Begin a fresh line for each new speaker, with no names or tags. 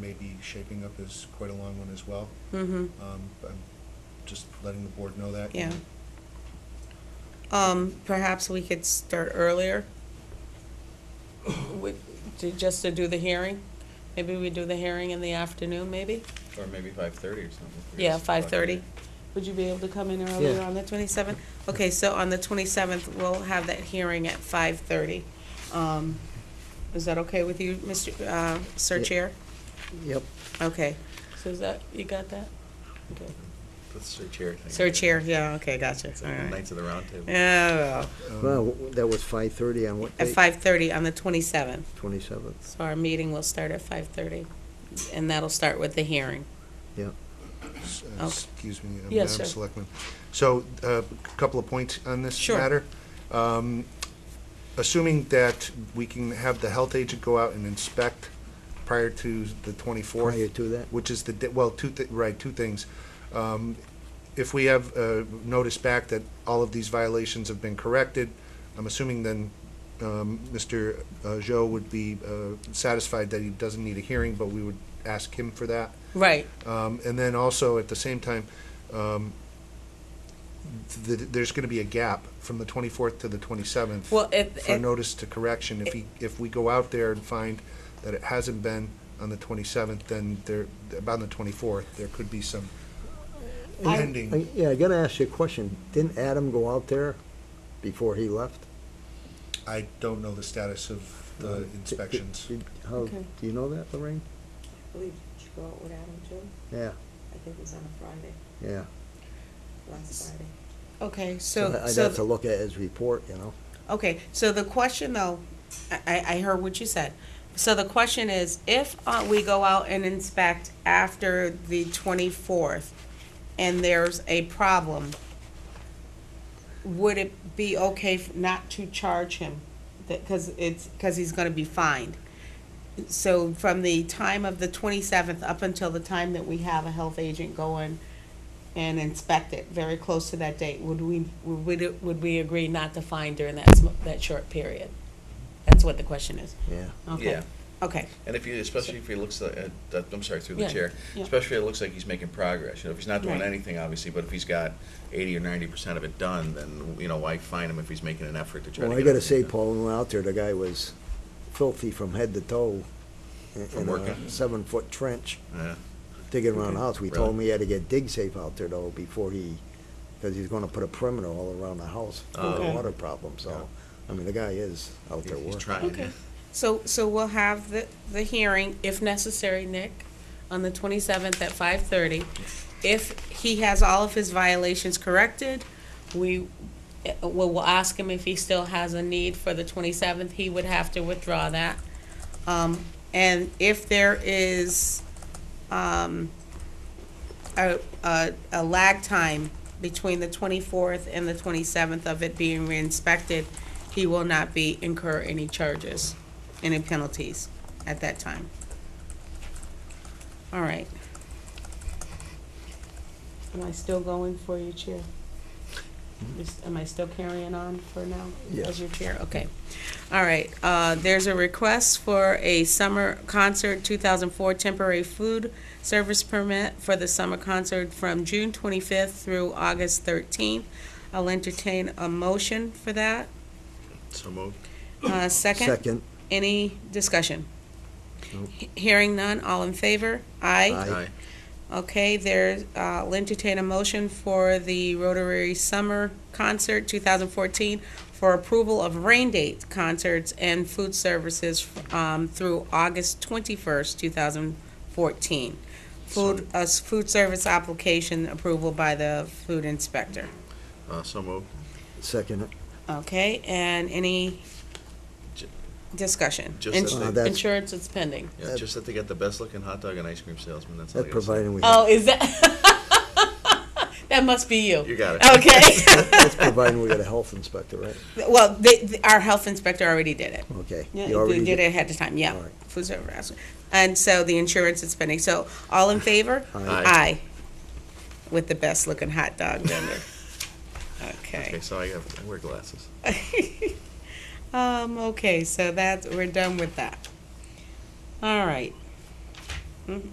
may be shaping up is quite a long one as well.
Mm-hmm,
Um, I'm just letting the board know that.
yeah. Um, perhaps we could start earlier with, to, just to do the hearing. Maybe we do the hearing in the afternoon, maybe?
Or maybe five thirty or something.
Yeah, five thirty. Would you be able to come in earlier
Yeah.
on the twenty-seventh? Okay, so on the twenty-seventh, we'll have that hearing at five thirty. Um, is that okay with you, Mr., uh, Sir
Yeah.
Chair?
Yep.
Okay, so is that, you got that? Okay.
That's Sir Chair thing.
Sir Chair, yeah, okay, gotcha,
It's
all
like the
right.
Knights of the Round Table.
Yeah, well,
Um,
Well, w- that was five thirty on what
at
date?
five thirty on the twenty-seventh.
Twenty-seventh,
So our meeting will start at five thirty, and that'll start with the hearing.
yeah.
s- uh,
Okay.
Excuse me, uh,
Yes,
Madam
sir.
Selectman. So, a couple of points on this
Sure.
matter. Um, Assuming that we can have the health agent go out and inspect prior to the 24th.
Prior to that?
Which is the, di- well, two, thi- right, two things. Um, If we have uh, notice back that all of these violations have been corrected, I'm assuming then um, Mr. Joe would be uh, satisfied that he doesn't need a hearing, but we would ask him for that.
Right,
Um, and then also at the same time, um, th- th- there's going to be a gap from the 24th to the 27th
well, if,
for notice to correction. If he, if we go out there and find that it hasn't been on the 27th, then there about on the 24th there could be some pending.
I- Yeah, I gotta ask you a question. Didn't Adam go out there before he left?
I don't know the status of the
Did- did-
inspections.
did- How,
Okay.
do you know that, Lorraine?
I believe, did you go out with Adam too?
Yeah,
I think it was on a Friday,
yeah.
last Friday.
okay, so.
I- I'd
so-
have to look at his report, you know?
Okay, so the question though, I- I, I heard what you said. So the question is, if uh, we go out and inspect after the twenty-fourth and there's a problem, would it be okay f- not to charge him? Because it's, because he's gonna be fined. So from the time of the twenty-seventh up until the time that we have a health agent go in and inspect it very close to that date, would we, would, it- would we agree not to fine during that, sm- that short period? That's what the question is.
Yeah.
Okay.
Yeah.
Okay,
And if you, especially if he looks like, uh, that- I'm sorry, through the
Yeah,
chair,
yeah.
especially if it looks like he's making progress, you know, if he's not doing
Right.
anything, obviously, but if he's got eighty or ninety percent of it done, then, you know, why fine him if he's making an effort to try to
Well,
get
I gotta
everything
say,
done?
Paul, when we went out there, the guy was filthy from head to toe. in-
From
in
working?
a seven-foot trench,
Yeah.
digging around the house. We told
Really?
him he had to get dig safe out there though before he, because he's gonna put a perimeter all around the house for the
Okay.
water problem, so. I mean, the guy is out there
He's- He's
working.
trying,
Okay.
yeah.
so, so we'll have the, the hearing, if necessary, Nick, on the twenty-seventh at five-thirty. If he has all of his violations corrected, we, eh, we'll, we'll ask him if he still has a need for the twenty-seventh, he would have to withdraw that. Um, and if there is, um, a, a, a lag time between the twenty-fourth and the twenty-seventh of it being re-inspected, he will not be incur any charges, any penalties at that time. All right. Am I still going for your chair? Is- Am I still carrying on for now?
Yes.
As your chair, okay. All right, uh, there's a request for a summer concert, two thousand four temporary food service permit for the summer concert from June twenty-fifth through August thirteenth. I'll entertain a motion for that.
So moved.
Uh, Second,
Second,
any discussion?
Nope.
He- Hearing none, all in favor? Aye.
Aye.
Aye.
Okay, there's, uh, I'll entertain a motion for the Rotary Summer Concert 2014 for approval of rain date concerts and food services um, through August 21st, 2014. Food, a s- food service application approval by the food inspector.
Uh, so moved.
second.
Okay, and any
Ju-
discussion?
Just that
Ins-
they- Uh,
that's-
Insurance is pending.
Yeah,
That-
just that they got the best-looking hot dog and ice cream salesman, that's all I
That
gotta say.
providing we,
Oh,
have-
is that? That must be
You
you.
got it.
Okay.
that's providing we got a health inspector, right?
Well, they, th our health inspector already did it.
Okay.
Yeah,
You
they
already
did
did-
it ahead of time, yeah.
All right.
Food service harassment. And so the insurance is pending. So all in favor?
Aye.
Aye. With the best looking hot dog vendor. Okay.
Okay, so I have, I wear glasses.
Um, okay, so that's, we're done with that. All right,